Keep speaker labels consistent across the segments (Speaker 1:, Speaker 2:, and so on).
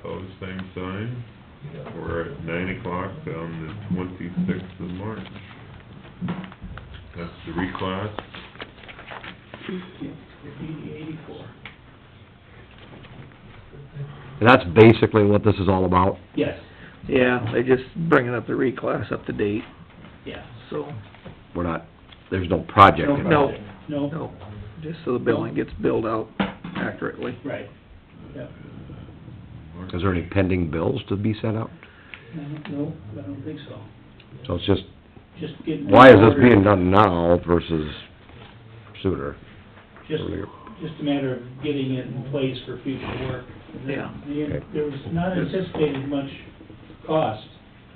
Speaker 1: Opposed, same sign. We're at nine o'clock on the twenty-sixth of March. That's the reclass.
Speaker 2: And that's basically what this is all about.
Speaker 3: Yes,
Speaker 4: Yeah, they're just bringing up the reclass up to date,
Speaker 3: yeah.
Speaker 4: so,
Speaker 2: We're not, there's no project
Speaker 4: No,
Speaker 2: involved.
Speaker 3: No,
Speaker 4: no, just so the billing gets billed out accurately.
Speaker 3: right, yeah.
Speaker 2: Is there any pending bills to be sent out?
Speaker 3: I don't- No, I don't think so.
Speaker 2: So it's just,
Speaker 3: Just getting.
Speaker 2: why is this
Speaker 3: ordered.
Speaker 2: being done now versus sooner?
Speaker 3: Just,
Speaker 2: earlier?
Speaker 3: just a matter of getting it in place for future work.
Speaker 4: Yeah.
Speaker 3: The- There was not anticipated much cost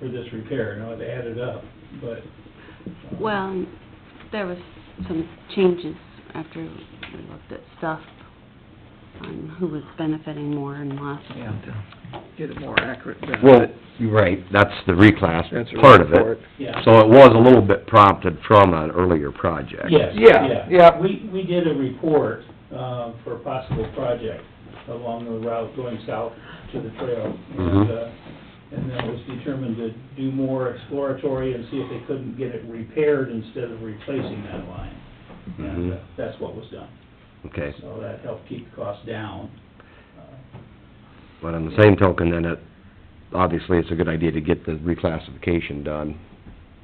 Speaker 3: for this repair, now it added up, but. uh,
Speaker 5: Well, there was some changes after we looked at stuff on who was benefiting more and less.
Speaker 4: And uh, get it more accurate benefit.
Speaker 2: Well, you're right, that's the reclass
Speaker 4: That's a
Speaker 2: part of
Speaker 4: report.
Speaker 2: it.
Speaker 3: Yeah.
Speaker 2: So it was a little bit prompted from an earlier project.
Speaker 3: Yes,
Speaker 4: Yeah,
Speaker 3: yeah.
Speaker 4: yeah.
Speaker 3: We, we did a report, uh, for a possible project along the route going south to the trail. And,
Speaker 2: Mhm.
Speaker 3: uh, and then it was determined to do more exploratory and see if they couldn't get it repaired instead of replacing that line. And uh,
Speaker 2: Mhm.
Speaker 3: that's what was done.
Speaker 2: Okay,
Speaker 3: So that helped keep the cost down. Uh,
Speaker 2: but on the same token, then it, obviously, it's a good idea to get the reclassification done,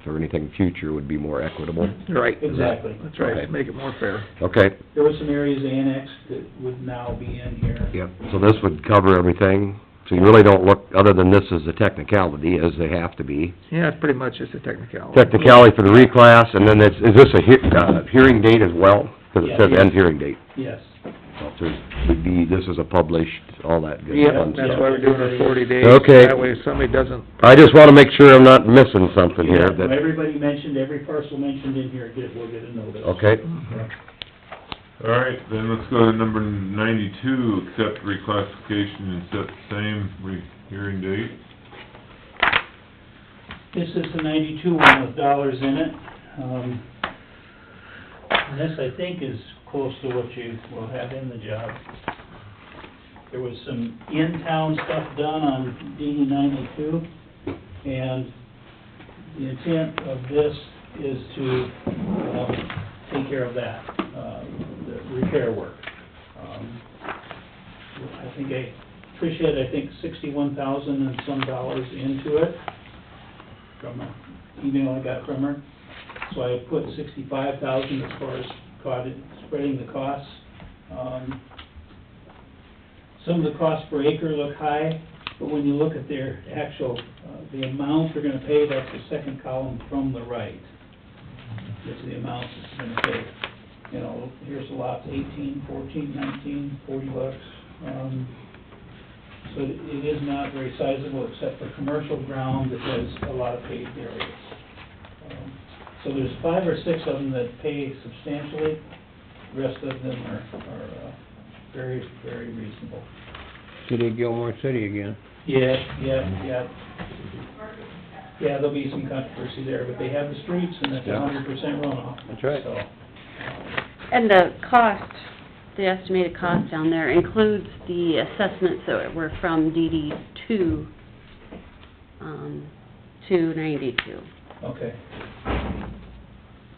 Speaker 2: so anything future would be more equitable.
Speaker 4: Right,
Speaker 3: Exactly.
Speaker 4: that's right, make it more fair.
Speaker 2: Okay,
Speaker 3: There were some areas annexed that would now be in here.
Speaker 2: Yep, so this would cover everything, so you really don't look, other than this is a technicality, as they have to be.
Speaker 4: Yeah, it's pretty much just a technicality.
Speaker 2: Technicality for the reclass, and then it's, is this a hea- uh, hearing date as well? Because it says end hearing date,
Speaker 3: Yes.
Speaker 2: so there's, would be, this is a published, all that good
Speaker 4: Yeah,
Speaker 2: fun
Speaker 4: that's
Speaker 2: stuff.
Speaker 4: why we're doing it forty days.
Speaker 2: Okay.
Speaker 4: That way if somebody doesn't,
Speaker 2: I just wanna make sure I'm not missing something
Speaker 3: Yeah,
Speaker 2: here,
Speaker 3: when
Speaker 2: that,
Speaker 3: Everybody mentioned, every parcel mentioned in here, get, will get a notice.
Speaker 2: okay?
Speaker 1: All right, then let's go to number ninety-two, accept reclassification and set the same re- hearing date.
Speaker 3: This is the ninety-two one with dollars in it. Um, and this, I think, is close to what you will have in the job. There was some in-town stuff done on DD ninety-two, and the intent of this is to, um, take care of that, uh, the repair work. Um, I think I, Trish had, I think, sixty-one thousand and some dollars into it from an email I got from her. So I put sixty-five thousand as far as caught it, spreading the costs. Um, Some of the costs per acre look high, but when you look at their actual, uh, the amount they're gonna pay, that's the second column from the right. Is the amount that's gonna pay. You know, here's the lots, eighteen, fourteen, nineteen, forty bucks. Um, so it it is not very sizable except for commercial ground that has a lot of paved areas. Um, So there's five or six of them that pay substantially, the rest of them are, are uh, very, very reasonable.
Speaker 6: City of Gilmore City again.
Speaker 3: Yeah, yeah, yeah. Yeah, there'll be some controversy there, but they have the streets and it's a
Speaker 6: Yeah.
Speaker 3: hundred percent runoff.
Speaker 6: That's right.
Speaker 3: So, um,
Speaker 5: And the cost, the estimated cost down there includes the assessments that were from DD two, um, two ninety-two.
Speaker 3: okay,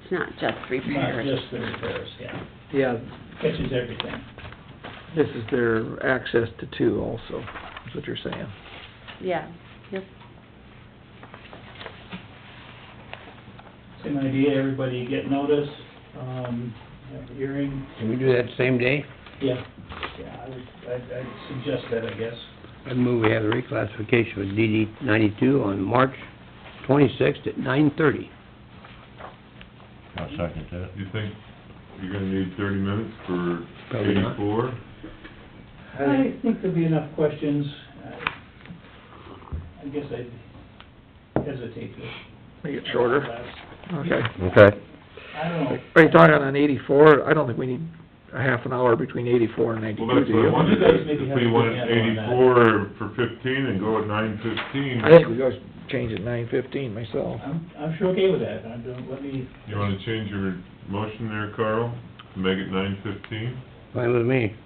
Speaker 5: It's not just
Speaker 3: not
Speaker 5: repairs.
Speaker 3: just the repairs, yeah,
Speaker 4: yeah,
Speaker 3: catches everything.
Speaker 4: this is their access to two also, is what you're saying.
Speaker 5: Yeah, yep.
Speaker 3: Same idea, everybody get notice, um, have a hearing,
Speaker 6: Can we do that same day?
Speaker 3: Yeah, yeah, I would, I'd, I'd suggest that, I guess.
Speaker 6: I move we have the reclassification with DD ninety-two on March twenty-sixth at nine thirty.
Speaker 7: I'll second that.
Speaker 1: You think you're gonna need thirty minutes for
Speaker 6: Probably not.
Speaker 1: eighty-four?
Speaker 3: I think there'll be enough questions. I- I guess I'd hesitate to.
Speaker 4: Make it shorter, okay.
Speaker 2: Okay,
Speaker 3: I don't know.
Speaker 4: Are you talking on eighty-four? I don't think we need a half an hour between eighty-four and
Speaker 1: Well,
Speaker 4: ninety-two,
Speaker 1: that's
Speaker 4: do
Speaker 1: what I
Speaker 4: you?
Speaker 1: wondered,
Speaker 3: You guys maybe
Speaker 1: if
Speaker 3: have
Speaker 1: we
Speaker 3: a
Speaker 1: went
Speaker 3: good handle
Speaker 1: eighty-four for fifteen and go at nine fifteen.
Speaker 4: I think we go change it nine fifteen myself.
Speaker 3: I'm, I'm sure okay with that. I don't, let me,
Speaker 1: You wanna change your motion there, Carl? Make it nine fifteen?
Speaker 6: Fine with me.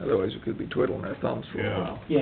Speaker 4: Otherwise, we could be twiddling our thumbs for a
Speaker 1: Yeah.
Speaker 4: while.